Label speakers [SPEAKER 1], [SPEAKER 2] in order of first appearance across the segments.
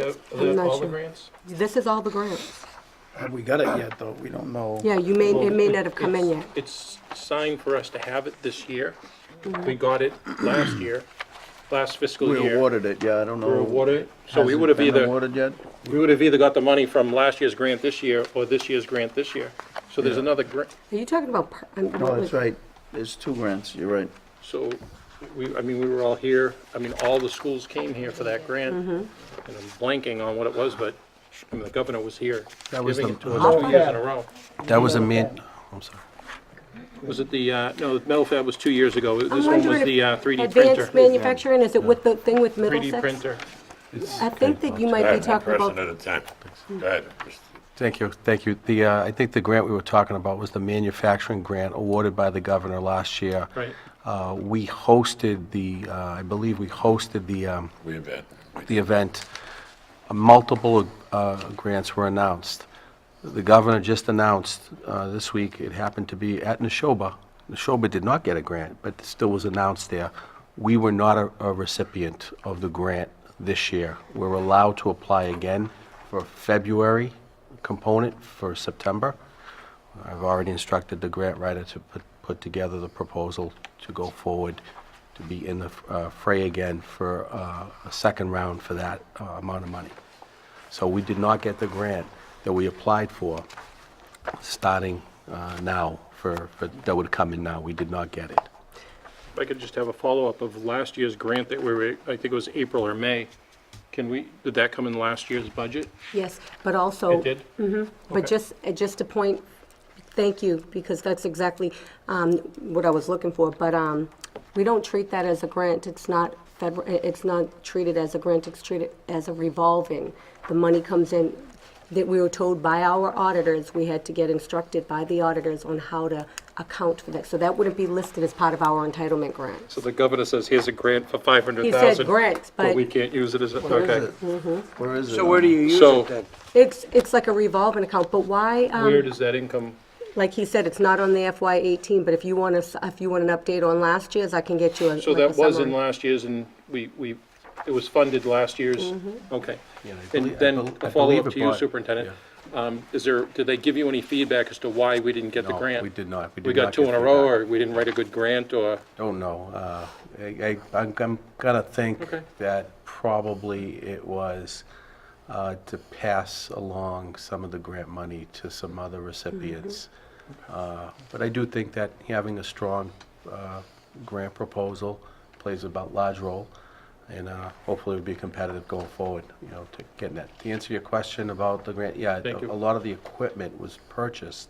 [SPEAKER 1] grants.
[SPEAKER 2] Are
[SPEAKER 1] I'm
[SPEAKER 2] there
[SPEAKER 1] not
[SPEAKER 2] all the
[SPEAKER 1] sure.
[SPEAKER 2] grants?
[SPEAKER 1] This is all the grants.
[SPEAKER 3] Have we got it yet, though? We don't know.
[SPEAKER 1] Yeah, you may, it may not have come in yet. Mm-hmm.
[SPEAKER 2] It's signed for us to have it this year. We got it last year, last fiscal
[SPEAKER 3] We
[SPEAKER 2] year.
[SPEAKER 3] awarded it, yeah, I don't know.
[SPEAKER 2] We're awarded, so
[SPEAKER 3] Has
[SPEAKER 2] we
[SPEAKER 3] it
[SPEAKER 2] would have
[SPEAKER 3] been
[SPEAKER 2] either,
[SPEAKER 3] Awarded yet?
[SPEAKER 2] we would have either got the money from last year's grant this year or this year's grant this year. So there's another grant,
[SPEAKER 1] Are you talking about? per- um,
[SPEAKER 3] No,
[SPEAKER 1] what
[SPEAKER 3] that's
[SPEAKER 1] was-
[SPEAKER 3] right. There's two grants, you're right.
[SPEAKER 2] so we, I mean, we were all here, I mean, all the schools came here for that grant. And
[SPEAKER 1] Mm-hmm.
[SPEAKER 2] I'm blanking on what it was, but I mean, the governor was here
[SPEAKER 4] That was
[SPEAKER 2] giving
[SPEAKER 4] the-
[SPEAKER 2] it to us two years in a row.
[SPEAKER 4] That was a mid, I'm sorry.
[SPEAKER 2] Was it the, uh, no, the metal fab was two years ago. This
[SPEAKER 1] I'm
[SPEAKER 2] one was
[SPEAKER 1] wondering
[SPEAKER 2] the uh,
[SPEAKER 1] if
[SPEAKER 2] 3D
[SPEAKER 1] Advanced
[SPEAKER 2] printer.
[SPEAKER 1] manufacturing, is it with the thing with
[SPEAKER 2] 3D
[SPEAKER 1] Middlesex?
[SPEAKER 2] printer.
[SPEAKER 1] I think that you might
[SPEAKER 5] I
[SPEAKER 1] be
[SPEAKER 5] have one
[SPEAKER 1] talking
[SPEAKER 5] person
[SPEAKER 1] about,
[SPEAKER 5] at a time. Go ahead. Mr.
[SPEAKER 4] Thank you, thank you. The, uh, I think the grant we were talking about was the manufacturing grant awarded by the governor last year.
[SPEAKER 2] Right.
[SPEAKER 4] Uh, We hosted the, uh, I believe we hosted the, um,
[SPEAKER 5] We invent.
[SPEAKER 4] the event. Multiple uh, grants were announced. The governor just announced uh, this week, it happened to be at Neshoba. Neshoba did not get a grant, but still was announced there. We were not a- a recipient of the grant this year. We're allowed to apply again for February component for September. I've already instructed the grant writer to put, put together the proposal to go forward, to be in the uh, fray again for uh, a second round for that uh, amount of money. So we did not get the grant that we applied for, starting uh, now, for, for- that would come in now. We did not get it.
[SPEAKER 2] If I could just have a follow-up of last year's grant that we were, I think it was April or May. Can we, did that come in last year's budget?
[SPEAKER 1] yes, but also.
[SPEAKER 2] It did?
[SPEAKER 1] But just, uh, just a point, thank you, because that's exactly um, what I was looking for. But um, we don't treat that as a grant. It's not federal, it's not treated as a grant, it's treated as a revolving. The money comes in, that we were told by our auditors, we had to get instructed by the auditors on how to account for that. So that wouldn't be listed as part of our entitlement grant.
[SPEAKER 2] So the governor says, here's a grant for 500,000.
[SPEAKER 1] grants, but-
[SPEAKER 2] we can't use it as, a
[SPEAKER 3] Where is
[SPEAKER 2] okay.
[SPEAKER 3] it? Where is it?
[SPEAKER 6] So where do you use
[SPEAKER 2] So-
[SPEAKER 6] it then?
[SPEAKER 1] It's, it's like a revolving account, but why? um,
[SPEAKER 2] Where does that income,
[SPEAKER 1] Like he said, it's not on the FY eighteen, but if you want us, if you want an update on last year's, I can get you a,
[SPEAKER 2] so
[SPEAKER 1] like a
[SPEAKER 2] that was in
[SPEAKER 1] summary.
[SPEAKER 2] last year's and we, we, it was funded last year's?
[SPEAKER 1] Mm-hmm.
[SPEAKER 2] Okay.
[SPEAKER 4] I
[SPEAKER 2] And
[SPEAKER 4] belie- I bel-
[SPEAKER 2] then
[SPEAKER 4] I
[SPEAKER 2] a
[SPEAKER 4] believe
[SPEAKER 2] follow-up
[SPEAKER 4] it
[SPEAKER 2] to you,
[SPEAKER 4] brought-
[SPEAKER 2] Superintendent. Um, Is there, did they give you any feedback as to why we didn't get the
[SPEAKER 4] No,
[SPEAKER 2] grant?
[SPEAKER 4] we did not. We
[SPEAKER 2] We
[SPEAKER 4] did
[SPEAKER 2] got
[SPEAKER 4] not
[SPEAKER 2] two
[SPEAKER 4] get
[SPEAKER 2] in a row,
[SPEAKER 4] feedback.
[SPEAKER 2] or we didn't write a good grant, or?
[SPEAKER 4] Don't know. Uh, I, I, I'm I'm gonna think
[SPEAKER 2] Okay.
[SPEAKER 4] that probably it was uh, to pass along some of the grant money to some other recipients.
[SPEAKER 2] Mm-hmm.
[SPEAKER 4] Uh, But I do think that having a strong uh, grant proposal plays a bo- large role, and uh, hopefully it'll be competitive going forward, you know, to getting that. To answer your question about the grant, yeah,
[SPEAKER 2] Thank you.
[SPEAKER 4] a lot of the equipment was purchased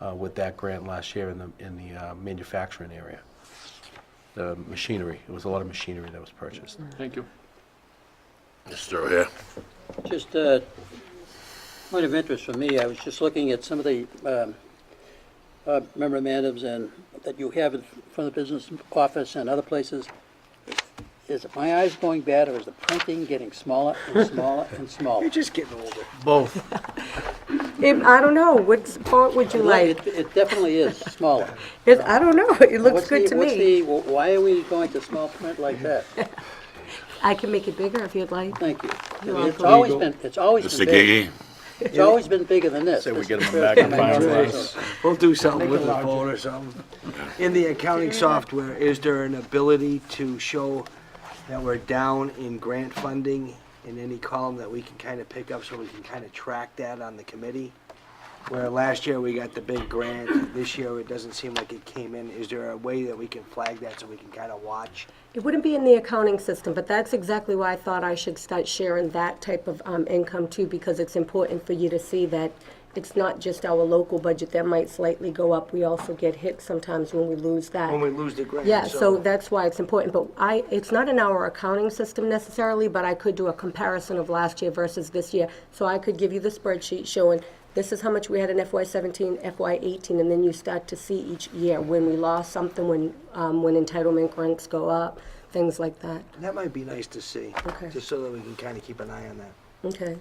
[SPEAKER 4] uh, with that grant last year in the, in the uh, manufacturing area the um, machinery. It was a lot of machinery that was purchased.
[SPEAKER 2] Thank you.
[SPEAKER 5] Mr. O'Hare.
[SPEAKER 6] Just a point of interest for me, I was just looking at some of the um, uh, memorandums and, that you have in front of the business office and other places. Is my eyes going bad, or is the printing getting smaller and smaller and smaller?
[SPEAKER 3] You're just getting older. Both.
[SPEAKER 1] If- I don't know, what font would you like?
[SPEAKER 6] It- It definitely is smaller.
[SPEAKER 1] It's- I don't know, it looks
[SPEAKER 6] What's
[SPEAKER 1] good
[SPEAKER 6] the-
[SPEAKER 1] to
[SPEAKER 6] What's
[SPEAKER 1] me.
[SPEAKER 6] the, wh- why are we going to small print like that?
[SPEAKER 1] I can make it bigger if you'd like.
[SPEAKER 6] Thank you.
[SPEAKER 1] You're
[SPEAKER 6] It's always
[SPEAKER 2] welcome.
[SPEAKER 6] been, it's always
[SPEAKER 5] Mr.
[SPEAKER 6] been big.
[SPEAKER 5] Gigi.
[SPEAKER 6] It's always been bigger than this.
[SPEAKER 3] Say we
[SPEAKER 6] This
[SPEAKER 3] get
[SPEAKER 6] is
[SPEAKER 3] them
[SPEAKER 6] the
[SPEAKER 3] back
[SPEAKER 6] first
[SPEAKER 3] in
[SPEAKER 6] time I
[SPEAKER 3] five
[SPEAKER 6] noticed
[SPEAKER 3] days.
[SPEAKER 6] it.
[SPEAKER 7] We'll do something with the phone or something. In the accounting software, is there an ability to show that we're down in grant funding in any column that we can kind of pick up so we can kind of track that on the committee? Where last year we got the big grant, this year it doesn't seem like it came in. Is there a way that we can flag that so we can kind of watch?
[SPEAKER 1] It wouldn't be in the accounting system, but that's exactly why I thought I should start sharing that type of um, income too, because it's important for you to see that it's not just our local budget that might slightly go up. We also get hit sometimes when we lose that.
[SPEAKER 7] When we lose the grant?
[SPEAKER 1] Yeah, so that's why it's important, but I, it's not in our accounting system necessarily, but I could do a comparison of last year versus this year. So I could give you the spreadsheet showing, this is how much we had in FY seventeen, FY eighteen, and then you start to see each year when we lost something, when, um, when entitlement grants go up, things like that.
[SPEAKER 7] That might be nice to see.
[SPEAKER 1] Okay.
[SPEAKER 7] Just so that we can kind of keep an eye on that.
[SPEAKER 1] Okay.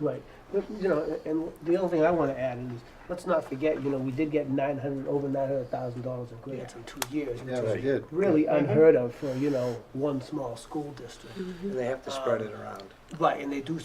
[SPEAKER 8] Right, But, you know, and the only thing I wanna add is, let's not forget, you know, we did get nine hundred, over nine hundred thousand dollars in grants in two years. which
[SPEAKER 3] Yeah, they
[SPEAKER 8] is
[SPEAKER 3] did. Mm-hmm.
[SPEAKER 8] Really unheard of for, you know, one small school district.
[SPEAKER 7] Mm-hmm. And they have to spread it around.
[SPEAKER 8] Right, and they do